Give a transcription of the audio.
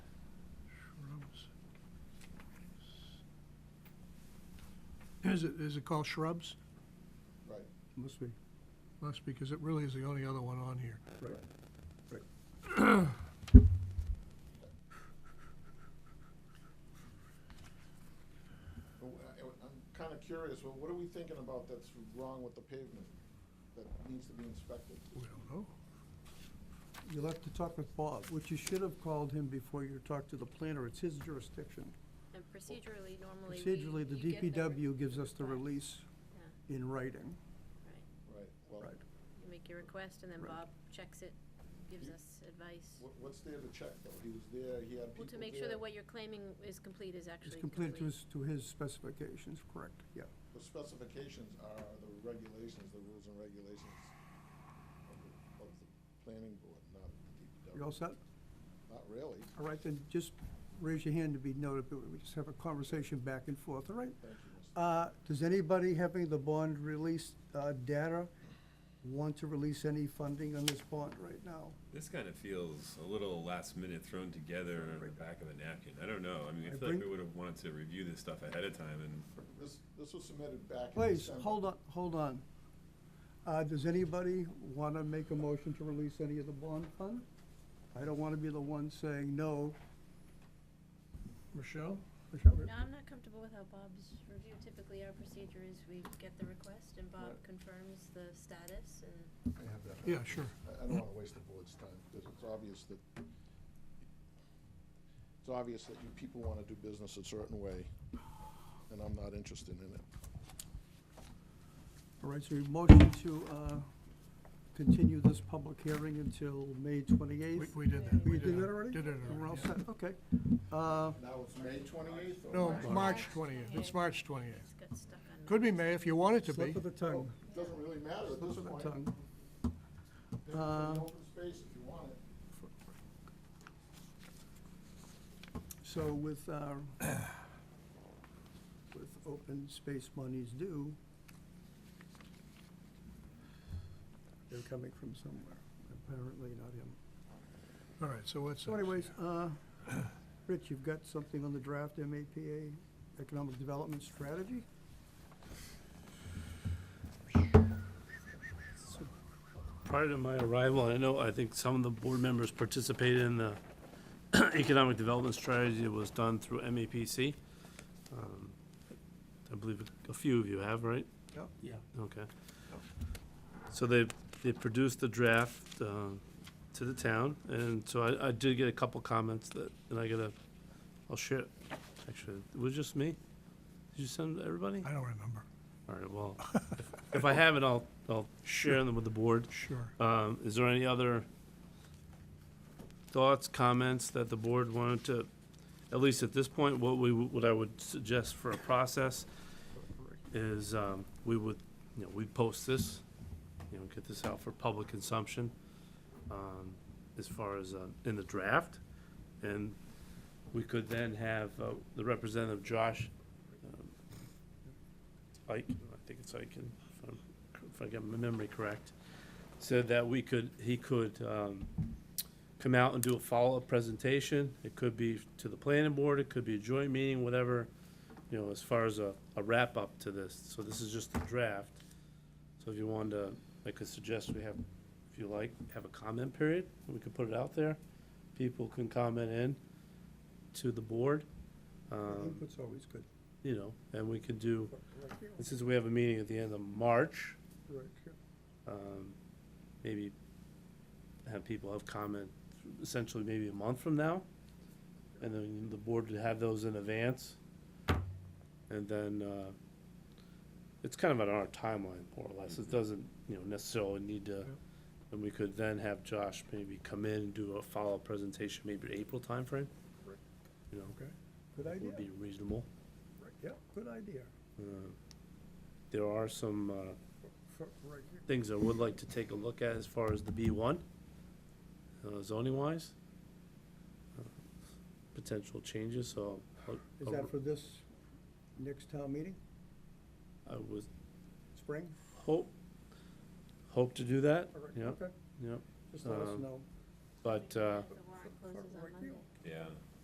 Is it, is it called shrubs? Right. Must be, Must, because it really is the only other one on here. right. But wh- I- I'm kind of curious, well, what are we thinking about that's wrong with the pavement that needs to be inspected? We don't know. You'll have to talk with Bob, which you should have called him before you talked to the planner. It's his jurisdiction. And procedurally, normally we. Procedurally, the you get the re- DPW gives us the Right. release Yeah, in writing. right. Right, well, Right. You make your request and then Right. Bob checks it, gives You- us advice. wh- what's there to check, though? He was there, he had people Well, there. to make sure that what you're claiming is complete is It's actually complete. completed to his, to his specifications, correct, yeah. The specifications are the regulations, the rules and regulations of the, of the planning board, not the DPW. You all set? Not really, All right, then just raise your hand to be noted, but we just have a conversation back and forth, all right? thank you, Mr. Uh, Does anybody having the bond release uh, data want to release any funding on this bond right now? This kind of feels a little last minute thrown together on the back of a napkin. I don't know. I mean, I I feel like we bring- would have wanted to review this stuff ahead of time and This, this was submitted back in Please, December. hold on, hold on. Uh, Does anybody want to make a motion to release any of the bond fund? I don't want to be the one saying no. Michelle? Michelle, No, I'm not comfortable with how Bob's review, typically our procedure is we get the request and Bob confirms the status and. I have that. Yeah, sure. I, I don't wanna waste the board's time, because it's obvious that, it's obvious that you people wanna do business a certain way, and I'm not interested in it. All right, so your motion to uh, continue this public hearing until May We, 28th? we did that. We did that already? Did it We're all already, yeah. set, okay. Uh, Now it's May twenty-eighth or? No, March March twentieth. It's 28th. March twentieth. Just got stuck on. Could be May if you want it to Oh, be. Slip of the tongue, Doesn't really matter Uh, at slip this of the point. tongue. Pick it from the Open space if you want it. So with, uh, with open space monies due, they're coming from somewhere, apparently not him. All right, so what's? So next? anyways, uh, Rich, you've got something on the draft MAPA Economic Development Strategy? Prior to my arrival, I know, I think some of the board members participated in the economic development strategy that was done through MAPC. Um, I believe a few of you have, right? Yep. Yeah. Okay. So they, they produced the draft uh, to the town, and so I, I did get a couple comments that, and I gotta, I'll share, actually, it was just me? Did you send everybody? I don't remember. All right, well, if- if I have it, I'll, I'll share them with the board. Sure. Um, is there any other thoughts, comments that the board wanted to, at least at this point, what we, what I would suggest for a process is, um, we would, you know, we'd post this, you know, get this out for public consumption, um, as far as, uh, in the draft. And we could then have, uh, the representative Josh, um, Ike, I think it's Ike, if I'm, if I got my memory correct, said that we could, he could um, come out and do a follow-up presentation. It could be to the planning board, it could be a joint meeting, whatever, you know, as far as a a wrap-up to this. So this is just a draft. So if you wanted to, I could suggest we have, if you like, have a comment period, we could put it out there. People can comment in to the board, um, Input's always good. you know, and we could do, Right here, and since we have a meeting at the end of March, right here. um, maybe have people have comment essentially maybe a month from now. And then the board would have those in advance. And then, uh, it's kind of on our timeline, more or less. It doesn't, you know, necessarily need to, and we could then have Josh maybe come in and do a follow-up presentation, maybe April timeframe. You know, Good idea, would be reasonable. right, yeah, good idea, Uh, There are some, uh, F- right here. things I would like to take a look at as far as the B1, uh, zoning-wise, uh, potential changes, so I'll- Is that for this next town meeting, I would spring? hope, hope to do that, All right, yeah, okay. yeah, Just let us Um, know. but, uh, The warrant closes on Right here. Monday. yeah,